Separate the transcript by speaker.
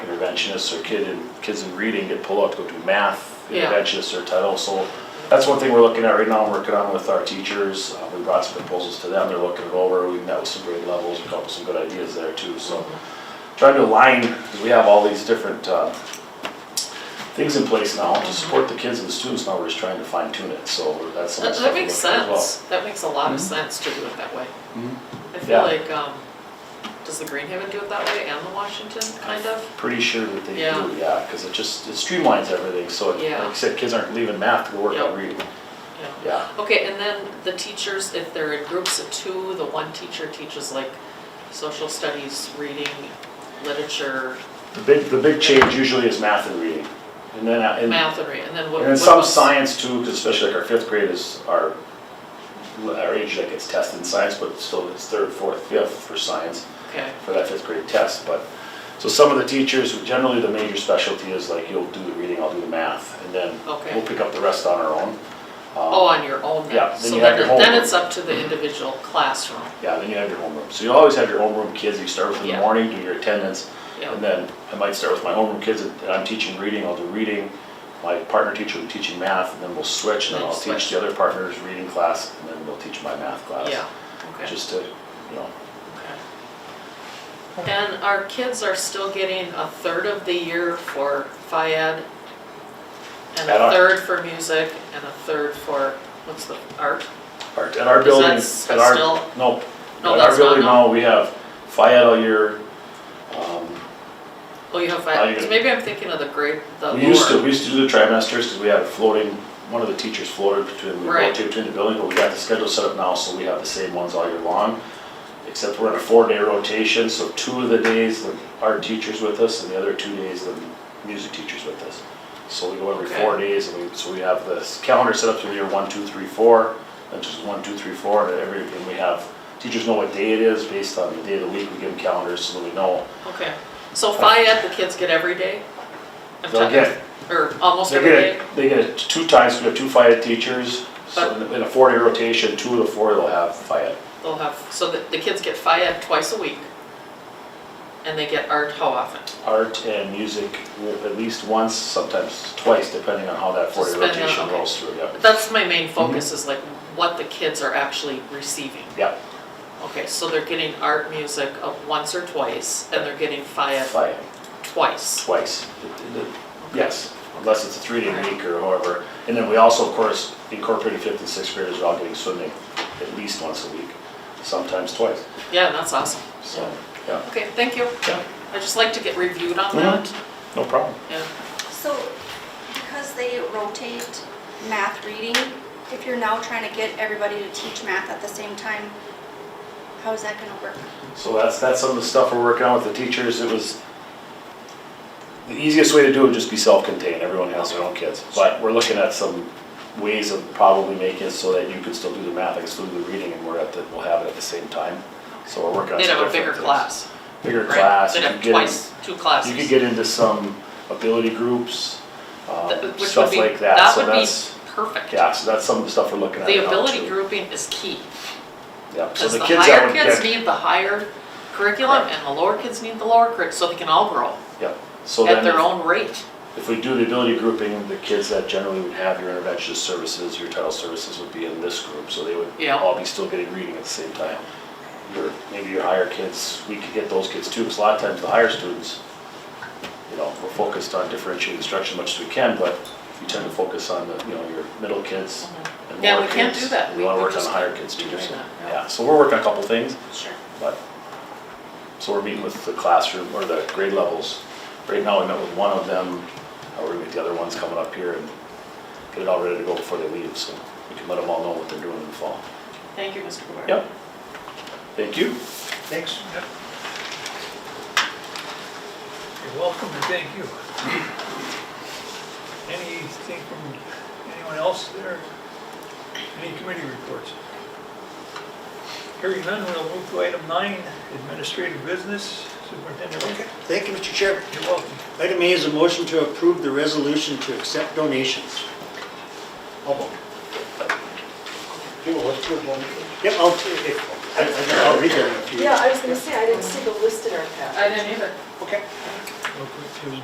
Speaker 1: interventionists or kid in, kids in reading get pulled out to go do math
Speaker 2: Yeah.
Speaker 1: interventionists or title. So that's one thing we're looking at right now, I'm working on with our teachers. Uh, We brought some proposals to them, they're looking it over, we met with some grade levels, we come up with some good ideas there too, so. Trying to align, because we have all these different, uh, things in place now to support the kids and the students, now we're just trying to fine tune it, so that's some
Speaker 2: That,
Speaker 1: of the stuff
Speaker 2: that
Speaker 1: we're
Speaker 2: makes
Speaker 1: looking at as well.
Speaker 2: sense, that makes a lot of sense to do it that way.
Speaker 1: Mhm.
Speaker 2: I
Speaker 1: Yeah.
Speaker 2: feel like, um, does the Greenhaven do it that way and the Washington, kind of?
Speaker 1: Pretty sure that they do,
Speaker 2: Yeah.
Speaker 1: yeah, because it just, it streamlines everything, so it- like
Speaker 2: Yeah.
Speaker 1: you said, kids aren't leaving math to go work on
Speaker 2: Yep.
Speaker 1: reading,
Speaker 2: Yeah.
Speaker 1: yeah.
Speaker 2: Okay, and then the teachers, if they're in groups of two, the one teacher teaches like social studies, reading, literature,
Speaker 1: The big, the big change usually is math and reading, and then, uh, and
Speaker 2: math, and re- and then what?
Speaker 1: And then
Speaker 2: what
Speaker 1: some
Speaker 2: was-
Speaker 1: science too, because especially like our fifth grade is our, our age that gets tested in science, but still it's third, fourth, fifth for science,
Speaker 2: Okay,
Speaker 1: for that fifth grade test, but, so some of the teachers, generally the major specialty is like, you'll do the reading, I'll do the math, and then
Speaker 2: Okay.
Speaker 1: we'll pick up the rest on our own.
Speaker 2: oh, on your own
Speaker 1: yeah,
Speaker 2: then,
Speaker 1: then
Speaker 2: so
Speaker 1: you have
Speaker 2: then,
Speaker 1: your
Speaker 2: it- then
Speaker 1: homework.
Speaker 2: it's up to the individual classroom,
Speaker 1: Yeah, then you have your homeroom, so you always have your homeroom kids, you start with in the
Speaker 2: Yeah.
Speaker 1: morning, do your attendance,
Speaker 2: yeah.
Speaker 1: And then I might start with my homeroom kids, and I'm teaching reading, I'll do reading. My partner teacher will be teaching math, and then we'll switch, and then
Speaker 2: Then
Speaker 1: I'll teach
Speaker 2: switch.
Speaker 1: the other partner's reading class, and then we'll teach my math class.
Speaker 2: Yeah, okay.
Speaker 1: Just to, you know,
Speaker 2: okay. And our kids are still getting a third of the year for FIAD, and
Speaker 1: At
Speaker 2: a
Speaker 1: our-
Speaker 2: third for music, and a third for, what's the, art?
Speaker 1: our- at our
Speaker 2: Is
Speaker 1: building,
Speaker 2: that's
Speaker 1: at our,
Speaker 2: still-
Speaker 1: no.
Speaker 2: No,
Speaker 1: At our
Speaker 2: that's not,
Speaker 1: building
Speaker 2: no.
Speaker 1: now, we have FIAD all year. Um,
Speaker 2: Oh, you have
Speaker 1: Oh,
Speaker 2: FIAD,
Speaker 1: you-
Speaker 2: because maybe I'm thinking of the grade, the
Speaker 1: We used to,
Speaker 2: lower.
Speaker 1: we used to do the trimesters, because we had floating, one of the teachers floated between, we
Speaker 2: Right.
Speaker 1: rotated between the buildings, but we got the schedule set up now, so we have the same ones all year long. Except we're in a four-day rotation, so two of the days, the art teacher's with us, and the other two days, the music teacher's with us. So we go every four
Speaker 2: Okay.
Speaker 1: days, and we, so we have this calendar set up through the year one, two, three, four, and just one, two, three, four, and every, and we have, teachers know what day it is, based on the day of the week, we give them calendars, so that we know.
Speaker 2: Okay, so FIAD, the kids get every day? I'm
Speaker 1: They'll
Speaker 2: talking-
Speaker 1: get-
Speaker 2: Or almost
Speaker 1: They
Speaker 2: every
Speaker 1: get,
Speaker 2: day?
Speaker 1: it- they get it two times, we have two FIAT teachers, so in- in a four-day rotation, two of the four they'll have FIAT.
Speaker 2: They'll have, so the, the kids get FIAD twice a week, and they get art how often?
Speaker 1: Art and music will at least once, sometimes twice, depending on how that four-day
Speaker 2: Depending on-
Speaker 1: rotation
Speaker 2: okay.
Speaker 1: rolls through, yep.
Speaker 2: That's my main
Speaker 1: Mm-hmm.
Speaker 2: focus, is like what the kids are actually receiving.
Speaker 1: Yep,
Speaker 2: Okay, so they're getting art, music uh, once or twice, and they're getting FIAD
Speaker 1: FIAT,
Speaker 2: twice.
Speaker 1: twice. Yes, unless it's a three-day
Speaker 2: Alright.
Speaker 1: week or however. And then we also, of course, incorporated fifth and sixth graders are all getting swimming at least once a week, sometimes twice,
Speaker 2: Yeah, that's awesome.
Speaker 1: so, yeah.
Speaker 2: Okay, thank you.
Speaker 1: Yeah,
Speaker 2: I just like to get reviewed on
Speaker 1: Mhm.
Speaker 2: that.
Speaker 1: no problem.
Speaker 2: Yeah,
Speaker 3: So, because they rotate math reading, if you're now trying to get everybody to teach math at the same time, how is that gonna work?
Speaker 1: So that's, that's some of the stuff we're working on with the teachers, it was, the easiest way to do it would just be self-contained, everyone has their own kids. But we're looking at some ways of probably making it so that you can still do the math, I can still do the reading, and we're at the, we'll have it at the same time. So we're working on
Speaker 2: they'd
Speaker 1: some
Speaker 2: have a
Speaker 1: different
Speaker 2: bigger
Speaker 1: things.
Speaker 2: class,
Speaker 1: Bigger
Speaker 2: right?
Speaker 1: class.
Speaker 2: They'd
Speaker 1: you
Speaker 2: have
Speaker 1: could get in-
Speaker 2: twice, two classes.
Speaker 1: You could get into some ability groups,
Speaker 2: Th-
Speaker 1: um,
Speaker 2: which
Speaker 1: stuff
Speaker 2: would be-
Speaker 1: like that, so that's,
Speaker 2: That would be perfect.
Speaker 1: yeah, so that's some of the stuff we're looking at
Speaker 2: The
Speaker 1: now,
Speaker 2: ability
Speaker 1: too.
Speaker 2: grouping is key,
Speaker 1: Yep, so
Speaker 2: because
Speaker 1: the
Speaker 2: the
Speaker 1: kids that
Speaker 2: higher
Speaker 1: would get.
Speaker 2: kids need the higher curriculum,
Speaker 1: Correct.
Speaker 2: and the lower kids need the lower curriculum, so they can all grow
Speaker 1: Yep, so then.
Speaker 2: at their
Speaker 1: if-
Speaker 2: own rate.
Speaker 1: If we do the ability grouping, the kids that generally would have your interventionist services, your title services would be in this group, so they would
Speaker 2: Yeah.
Speaker 1: all be still getting reading at the same time. Your, maybe your higher kids, we could get those kids too, because a lot of times the higher students, you know, we're focused on differentiated instruction as much as we can, but you tend to focus on the, you know, your middle kids and
Speaker 2: Mm-hmm. Yeah,
Speaker 1: lower
Speaker 2: we
Speaker 1: kids.
Speaker 2: can't do that.
Speaker 1: and
Speaker 2: We-
Speaker 1: We wanna
Speaker 2: we
Speaker 1: work on the
Speaker 2: just
Speaker 1: higher
Speaker 2: can't
Speaker 1: kids
Speaker 2: be
Speaker 1: too,
Speaker 2: doing
Speaker 1: so,
Speaker 2: that, yeah.
Speaker 1: yeah, so we're working on a couple things.
Speaker 3: Sure.
Speaker 1: But, so we're meeting with the classroom or the grade levels. Right now, we met with one of them, uh, we're gonna meet the other ones coming up here and get it all ready to go before they leave, so we can let them all know what they're doing in the fall.
Speaker 2: Thank you, Mr. Gubar.
Speaker 1: Yep. Thank you.
Speaker 4: Thanks. You're welcome and thank you. Anything from anyone else there? Any committee reports? Hearing none, we'll move to item nine, administrative business. Superintendent Rickett,
Speaker 5: Thank you, Mr. Chair.
Speaker 4: you're welcome.
Speaker 5: Item A is a motion to approve the resolution to accept donations. I'll vote. Yep, I'll, if- I- I- I'll read that in a few.
Speaker 6: Yeah, I was gonna say, I didn't see the list in our packet.
Speaker 2: didn't either.
Speaker 5: Okay.
Speaker 4: We'll real quick too.